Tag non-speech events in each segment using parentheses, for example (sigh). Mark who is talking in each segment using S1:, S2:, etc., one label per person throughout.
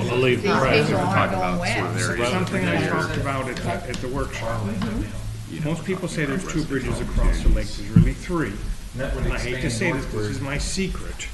S1: believe the
S2: These
S1: press.
S2: people aren't
S3: Talk
S2: going
S3: about sort of
S2: west.
S3: areas that
S4: Something
S3: they
S4: I
S3: are,
S4: talked about at, the- at the workshop.
S3: you know,
S4: Most people say
S3: talking
S4: there's
S3: about
S4: two bridges
S3: residential
S4: across the lake,
S3: communities.
S4: there's really three.
S5: And that would
S4: And I hate to
S5: expand
S4: say this, this
S5: northward.
S4: is my secret.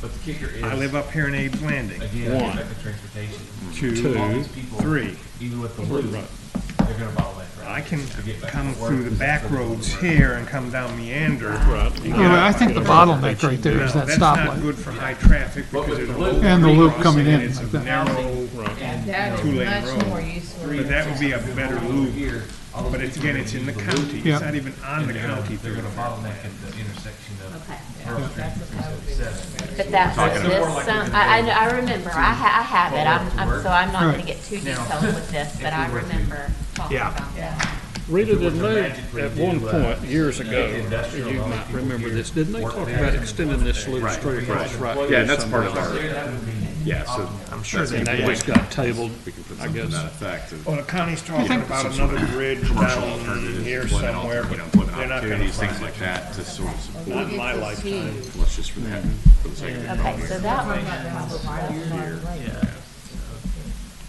S5: But the kicker is,
S4: I live up here in Abe's Landing.
S5: again,
S1: One,
S5: effective transportation.
S4: two,
S5: All these people,
S4: three.
S5: Even with the loop, they're gonna bottleneck, right?
S4: I can
S5: To get back
S4: come
S5: to work,
S4: through the
S5: because
S4: back
S5: that's where the
S4: roads
S5: work-
S4: here and come down Meander.
S1: Right. You
S6: Oh, I think the
S1: get a-
S6: bottleneck right there is
S4: No,
S6: that
S4: That's not
S6: stoplight.
S4: good for high traffic because
S5: with
S4: there's
S5: the
S4: a
S5: loop-
S4: whole
S6: And the loop
S4: crossing
S6: coming in
S4: and It's
S6: like
S4: a
S6: that.
S4: narrow,
S2: Yeah, That
S4: Two-lane
S2: is much
S4: road.
S2: more useful.
S4: but that would be a better loop.
S5: Here, all those
S4: But it's,
S5: people
S4: again,
S5: are
S4: it's in the
S5: gonna use
S4: county,
S6: Yeah.
S4: it's not even on the
S5: loop. They're
S4: county.
S5: gonna- They're gonna bottleneck at the intersection of
S7: Okay.
S5: Pearl Street and three seventy-seven.
S7: But that,
S3: Talking
S7: this,
S5: about-
S7: sound- I, I, I remember, I ha, I have it, I'm, I'm, so I'm not gonna
S6: Right.
S7: get too
S5: Now,
S7: detailed with this, but I remember talking
S4: Yeah.
S7: about that.
S1: Rita,
S5: If it was
S1: didn't
S5: a
S1: they,
S5: magic ring,
S1: at one
S5: you'd, uh,
S1: point, years ago,
S5: industrial,
S1: you
S5: all these
S1: might
S5: people
S1: remember
S5: here,
S1: this, didn't they
S5: work
S1: talk
S5: there
S1: about
S5: and
S1: extending this loop
S3: Right,
S1: straight across right?
S3: Yeah,
S1: through
S3: and that's part of
S1: somebody's-
S3: our,
S5: That would be.
S3: yeah, so
S6: I'm sure
S1: And
S6: they,
S1: that just got tabled,
S3: we can put
S1: I
S3: something to
S1: guess.
S3: that effect of
S4: Well, the county's talking about
S3: some sort
S4: another
S3: of
S4: bridge
S3: commercial
S4: down
S3: alternatives,
S4: here
S3: employment
S4: somewhere,
S3: alternatives,
S4: but
S3: employment
S4: they're not gonna
S3: opportunities,
S4: find
S3: things
S4: it.
S3: like that to sort of support,
S4: Not in my
S2: It's huge.
S4: lifetime.
S3: well, it's just for that, for the sake of it.
S7: Okay, so that one was probably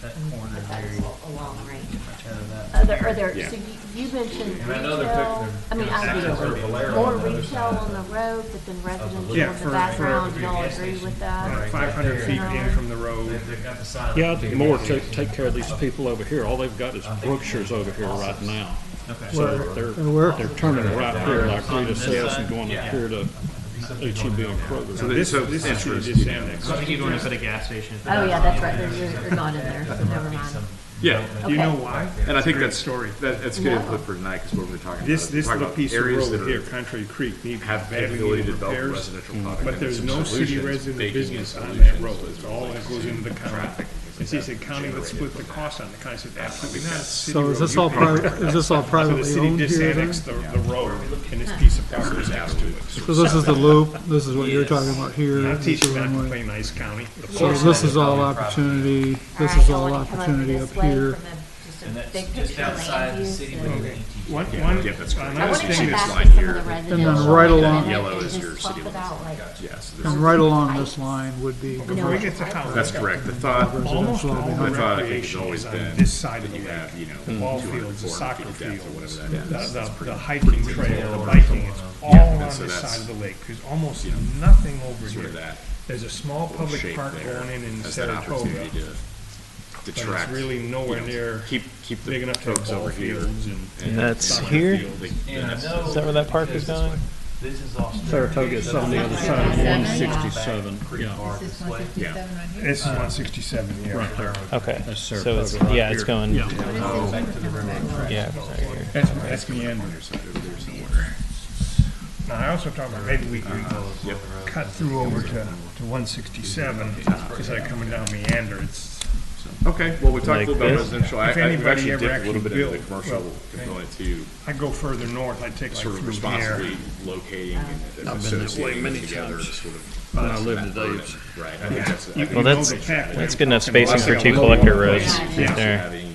S5: That corner there,
S7: a long range.
S5: much out of that.
S7: Other, are there,
S3: Yeah.
S7: so you, you mentioned
S5: And I know they're
S7: retail,
S5: fixing
S7: I mean,
S5: to
S7: I
S5: access
S7: do,
S5: or Valero
S7: more
S5: on the other
S7: retail
S5: side
S7: on the road, but then residential
S4: Yeah,
S7: in
S4: for-
S7: the
S4: for
S7: background, you all
S5: gas
S7: agree
S5: station.
S7: with that?
S5: Right.
S4: Five hundred feet in from the road.
S5: They've they've got the sign.
S1: Yeah, I'd do more to take care of these people over here. All they've got is Brookshire's over here right now. So they're,
S6: Or where?
S1: they're turning right here like Rita says and going up here to HEB and
S3: So
S1: Kroger.
S3: they-
S4: This,
S3: so
S4: this is who you
S3: interest,
S4: just
S3: you know,
S4: annexed.
S8: So I think you'd want to put a gas station. if
S7: Oh, yeah, that's right, there- you're, you're not in there, so never mind.
S3: Yeah,
S4: You
S7: Okay.
S4: know why?
S3: and I think
S4: Great
S3: that's,
S4: story.
S3: that, that's good input for tonight, because what we're talking about.
S4: This,
S3: we're
S4: this
S3: talking
S4: little
S3: about
S4: piece of
S3: areas that
S4: road here,
S3: are-
S4: Country Creek, needs
S3: Have the
S4: badly
S3: ability
S4: needed
S3: to develop
S4: repairs.
S3: residential product.
S4: But there's no city resident business on that road, it's all that goes into the county. And he said, county, let's split the cost on the county, I said, absolutely not. It's city
S6: so is
S4: road,
S6: this
S4: you
S6: all
S4: pay
S6: private,
S4: for it."
S6: is this
S4: (laughs) So
S6: all
S4: the
S6: privately
S4: city
S6: owned here then?
S4: disannexed the, the road and this piece of property next to it.
S6: So this is the loop, this is what you're talking about here.
S4: I'm
S6: this is
S4: teaching
S6: the
S4: them to
S6: runway.
S4: play nice county.
S6: So this is all opportunity, this
S7: Alright,
S6: is
S7: I
S6: all
S7: wanna come over
S6: opportunity
S7: this
S6: up
S7: way
S6: here.
S7: from a- just a
S5: And that's
S7: big
S5: just
S7: picture of
S5: outside the
S7: land
S5: city
S7: use
S5: with
S7: and-
S5: an ETV.
S4: One, one, uh,
S3: Yeah, that's great.
S7: I
S4: another
S7: want to
S4: thing
S7: come
S3: this
S4: is,
S7: back
S3: line
S7: to some
S3: here.
S7: of the
S3: And
S7: residential.
S6: then right
S7: and
S6: along-
S7: then
S3: Yellow is
S7: just
S3: your
S7: talk
S3: city limits.
S7: about, like,
S3: Yes,
S6: And right along this line would be,
S4: before we get to housing.
S3: that's correct. The thought,
S4: Almost all
S6: Residential
S4: the
S3: behind. I thought I think it's
S4: recreation
S3: always
S4: is on
S3: been
S4: this side of the
S3: you have,
S4: lake.
S3: you know,
S4: The ball
S3: 200,
S4: fields, the
S3: 400
S4: soccer
S3: feet depth or
S4: fields,
S3: whatever
S4: the,
S3: that is. That's
S4: the- the hiking trail, the biking, it's all on this
S3: so that's-
S4: side of the lake. There's almost nothing over
S3: Sort of
S4: here.
S3: that
S4: There's a small public
S3: shape
S4: park
S3: there.
S4: going in in
S3: That's that
S4: Saratoga,
S3: opportunity to
S4: but
S3: detract.
S4: it's really nowhere near
S3: Keep, keep
S4: big
S3: the
S4: enough to have
S3: folks
S4: ball
S3: over here.
S4: fields and.
S3: And
S8: that's
S4: soccer
S8: here?
S4: fields.
S5: And I know.
S8: Is that where that park is going?
S5: This is all.
S1: Saratoga is on the other side of one sixty-seven, yeah,
S2: This is one fifty-seven right here.
S4: This is one sixty-seven, yeah.
S1: right there.
S8: Okay,
S1: That's
S8: so
S1: Saratoga
S8: it's,
S1: right
S8: yeah, it's
S1: here.
S8: going, yeah, it's right here.
S4: That's, that's the end. Now, I also talked about maybe we could
S3: Uh-huh.
S4: cut through over to, to one sixty-seven instead of coming down Meander. It's,
S3: Okay, well, we talked a little about
S8: this?
S3: residential. I,
S4: If
S3: I, we've
S4: anybody
S3: actually
S4: ever
S3: dipped a little
S4: actually
S3: bit into the
S4: built,
S3: commercial
S4: well,
S3: component to
S4: I go further north, I take like
S3: sort of
S4: through here.
S3: responsibly locating and
S1: I've been that way
S3: associating
S1: many
S3: them together to
S1: times.
S3: sort of.
S1: When I lived
S3: that
S1: in
S3: burden,
S1: Dave's.
S3: Right, I think that's, I
S4: You-
S3: think
S4: you
S8: Well,
S4: know
S8: that's-
S4: the pathway
S8: That's
S4: I'm
S8: good enough
S4: talking
S8: spacing
S4: about.
S3: Unless I
S8: for
S3: got
S8: two
S3: low water
S8: collector
S3: rates,
S8: roads
S3: it's
S8: right
S3: not
S8: there.
S3: having anything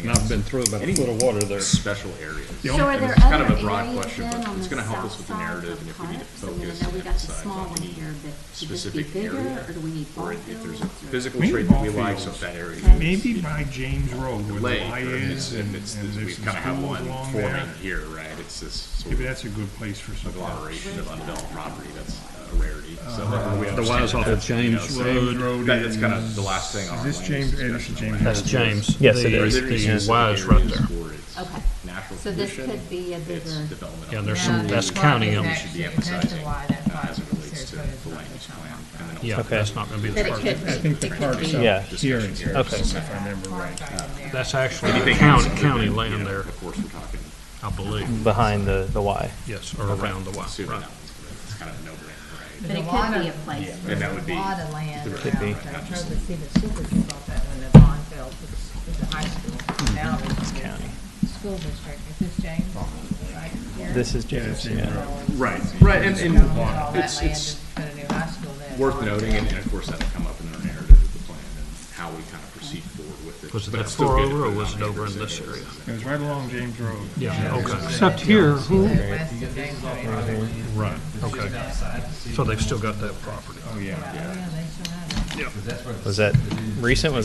S1: And I've
S3: else.
S1: been through about a
S3: Any
S1: foot of water there.
S3: Special areas.
S7: So are
S3: And
S7: there
S3: it's kind of a
S7: other
S3: broad
S7: areas
S3: question,
S7: then
S3: but
S7: on
S3: it's
S7: the
S3: gonna help us
S7: south
S3: with the
S7: side
S3: narrative
S7: of
S3: and
S7: the
S3: if we need
S7: park?
S3: to
S7: So I mean,
S3: focus
S7: I know we
S3: and
S7: got the
S3: decide
S7: small
S3: what we
S7: one
S3: need,
S7: here, but should this be
S3: specific
S7: bigger,
S3: area,
S7: or do we need
S3: Or
S7: ball
S3: if there's
S7: fields?
S3: a
S7: or-
S3: physical
S4: We need
S3: trait that
S4: ball
S3: we like, so
S4: fields.
S3: if that area is
S4: Maybe by James Road where the
S3: lake,
S4: Y
S3: or it's,
S4: is
S3: and
S4: and, and
S3: it's, and we
S4: there's some
S3: kind of have
S4: schools
S3: one
S4: along
S3: forming
S4: there.
S3: here, right? It's this sort
S4: Maybe
S3: of
S4: that's a good place for some.
S3: agglomeration of undeveloped property that's a rarity, so. we
S1: The Y's off of James
S4: James
S1: Road.
S4: Road
S3: That is
S4: is,
S3: kind of the last thing on our
S4: is this
S3: land
S4: James,
S3: use
S4: eh, this is
S3: discussion.
S4: James.
S1: That's James.
S8: Yes, it
S1: The-
S8: is.
S3: There is
S1: The Y's right
S3: areas
S1: there.
S3: for its
S7: Okay.
S3: Natural
S7: So this
S3: condition,
S7: could be a
S3: its
S7: bigger-
S3: development.
S1: Yeah, there's
S2: Now,
S1: some,
S2: the
S1: that's
S2: park
S1: county
S2: is
S1: owned.
S2: actually-
S3: Should be
S2: that's
S3: emphasizing
S2: why
S3: uh,
S2: that park
S3: as it
S2: in
S3: relates to
S2: Saratoga is
S3: the
S2: not
S3: land use
S2: on
S3: plan.
S2: that.
S3: And then
S1: Yeah,
S3: also
S8: Okay.
S1: that's not gonna be
S2: But
S1: the
S2: it
S1: park.
S2: could
S4: I think the
S2: be,
S4: park's up
S8: Yeah.
S4: here in
S8: Okay.
S4: Saratoga, if I remember right.
S1: That's actually
S3: anything else
S1: county,
S3: other
S1: county
S3: than, you
S1: land
S3: know,
S1: there,
S3: Of course, we're talking,
S1: I believe,
S8: Behind the, the Y.
S1: yes, or around the Y,
S3: assuming
S1: right.
S3: that one's, gonna- it's kind of a no-brainer,
S7: But it could be a place.
S3: right? And that would
S2: A
S3: be,
S2: lot of land around,
S3: Could be.
S2: there. I drove to see the super bought that when the bond fell, was, was a high
S8: Hmm.
S2: school. Now it's
S8: county.
S2: a school district, is this James? Right here?
S8: This is James, yeah.
S3: right, right, and,
S2: Bonded all that
S3: and
S2: land
S3: it's, it's
S2: and Put a new high school there.
S3: worth noting, and and of course, that'll come up in our narrative of the plan and how we kind of proceed forward with it.
S1: Was it
S3: But
S1: that
S3: it's still
S1: far
S3: good to
S1: over, or
S3: put
S1: was
S3: on
S1: it over
S3: paper
S1: in this
S3: saying
S1: area?
S4: It was right along James Road.
S1: Yeah, okay,
S6: except here, who,
S2: The West of James Road.
S1: right, okay. So they've still got that property.
S4: Oh, yeah.
S2: Yeah, they still have it.
S8: Was that recent? Was